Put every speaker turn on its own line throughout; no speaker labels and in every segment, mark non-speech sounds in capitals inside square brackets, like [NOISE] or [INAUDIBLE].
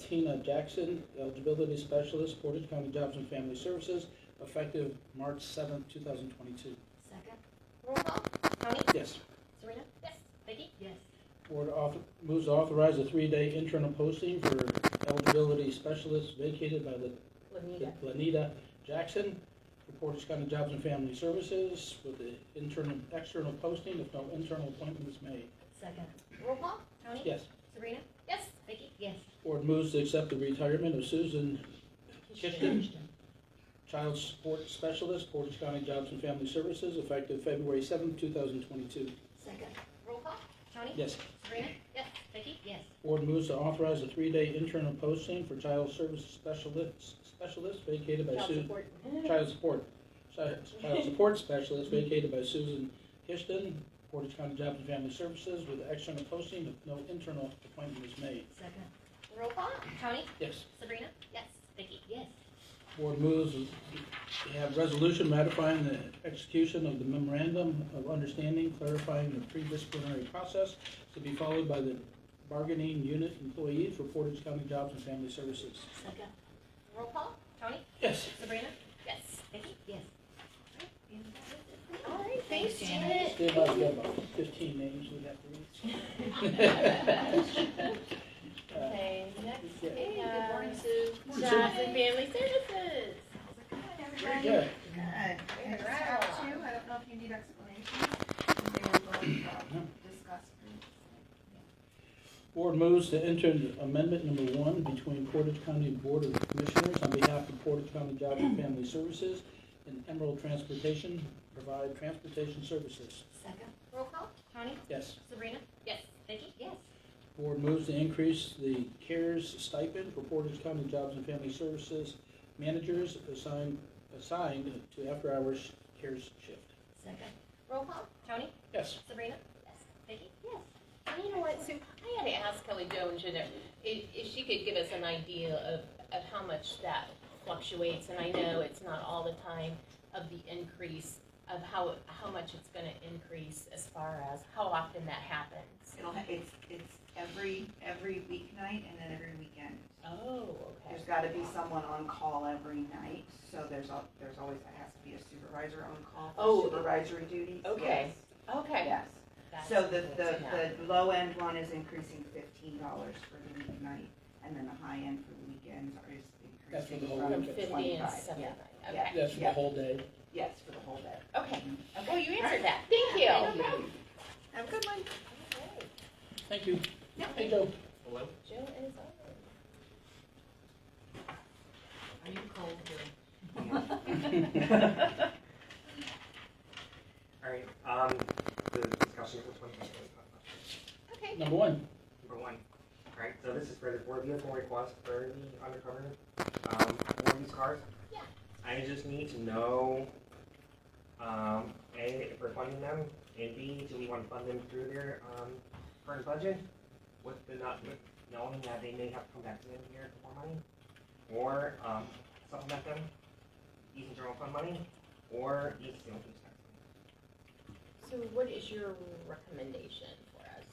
Tina Jackson, eligibility specialist, Portage County Jobs and Family Services, effective March seventh, two thousand twenty-two.
Second?
Roll call. Tony?
Yes.
Serena? Yes. Vicky?
Yes.
Board author, moves to authorize a three-day internal posting for eligibility specialist vacated by La-
Lanita?
Lanita Jackson for Portage County Jobs and Family Services with the internal, external posting if no internal appointment is made.
Second?
Roll call. Tony?
Yes.
Serena? Yes. Vicky?
Yes.
Board moves to accept the retirement of Susan Kishkin, Child Support Specialist, Portage County Jobs and Family Services, effective February seventh, two thousand twenty-two.
Second?
Roll call. Tony?
Yes.
Serena? Yes. Vicky?
Yes.
Board moves to authorize a three-day internal posting for Child Services Specialist, Specialist vacated by
Child
Susan.
support?
Child Support, Si- Child Support Specialist vacated by Susan Kishton, Portage County Jobs and Family Services, with external posting if no internal appointment is made.
Second?
Roll call. Tony?
Yes.
Sabrina? Yes. Vicky?
Yes.
Board moves to have resolution ratifying the execution of the memorandum of understanding clarifying the pre-disciplinary process to be followed by the bargaining unit employees for Portage County Jobs and Family Services.
Second?
Roll call. Tony?
Yes.
Sabrina? Yes. Vicky?
Yes.
All right, thanks,
Janet.
Janet.
They about got about fifteen names we have to [LAUGHS] read. Uh,
Okay, next
Yeah.
we
Good
have
morning, Sue.
Jobs and Family Services.
Very good.
Good. We had staff too, I don't know if you need explanation. They were going to discuss.
Board moves to enter into amendment number one between Portage County Board of Commissioners on behalf of Portage County Job and Family Services and Emerald Transportation, provide transportation services.
Second?
Roll call. Tony?
Yes.
Sabrina? Yes. Vicky?
Yes.
Board moves to increase the CARES stipend for Portage County Jobs and Family Services managers assigned, assigned to after-hours CARES shift.
Second?
Roll call. Tony?
Yes.
Sabrina? Yes. Vicky?
Yes, and you know what, Sue, I had to ask Kelly Joan Jenner, if, if she could give us an idea of, of how much that fluctuates, and I know it's not all the time of the increase, of how, how much it's gonna increase as far as how often that happens.
It'll, ha- it's, it's every, every weeknight and then every weekend.
Oh, okay.
There's gotta be someone on call every night, so there's al- there's always, that has to be a supervisor on call
Oh.
for supervisory duties.
Okay. Okay.
Yes, yes.
That's
So the,
good
the,
to know.
the low end one is increasing fifteen dollars for the weeknight, and then the high end for the weekends is
That's for the
increasing
whole
from
From
weekend.
fifty and
twenty-five.
seventy-nine,
Yeah,
okay,
That's for the
Yeah.
whole day.
yes, for the whole day.
okay, okay, you answered that, thank you.
No problem.
Have a good one.
Okay.
Thank you.
Yeah.
Hey, Joe.
Hello? [LAUGHS]
Joe is on.
Are you cold, [LAUGHS]
All right, um, the discussion, which one?
Okay.
Number one.
Number one. All right, so this is for the board vehicle request for the undercover, um, for these cars.
Yeah.
I just need to know, um, A, if we're funding them, and B, do we want to fund them through their, um, current budget? With the not, with knowing that they may have to come back to them here for more money, or, um, supplement them, using general fund money, or use the open tax money.
So what is your recommendation for us,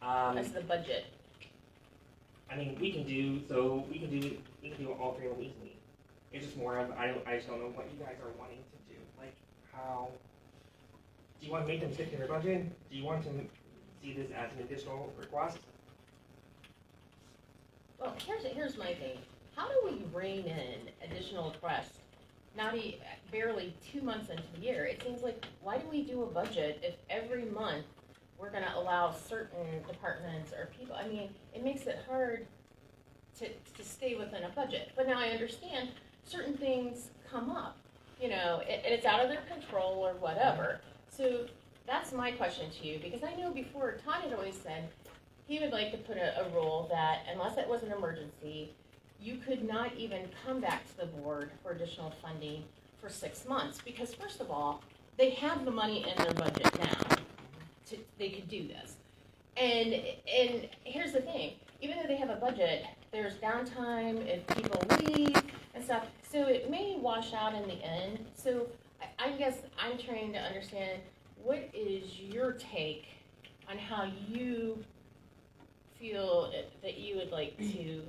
Um,
as the budget?
I mean, we can do so. We can do we can do all three of them easily. It's just more of I don't I just don't know what you guys are wanting to do. Like how do you want to make them stick to their budget? Do you want to see this as an additional request?
Well, here's, here's my thing. How do we rein in additional requests? Not e- barely two months into the year. It seems like, why do we do a budget if every month we're gonna allow certain departments or people? I mean, it makes it hard to, to stay within a budget. But now I understand certain things come up, you know, and, and it's out of their control or whatever. So that's my question to you, because I know before Todd had always said, he would like to put a, a rule that unless it was an emergency, you could not even come back to the board for additional funding for six months, because first of all, they have the money in their budget now. To, they could do this. And, and here's the thing, even though they have a budget, there's downtime if people leave and stuff, so it may wash out in the end. So I, I guess I'm trying to understand, what is your take on how you feel that you would like to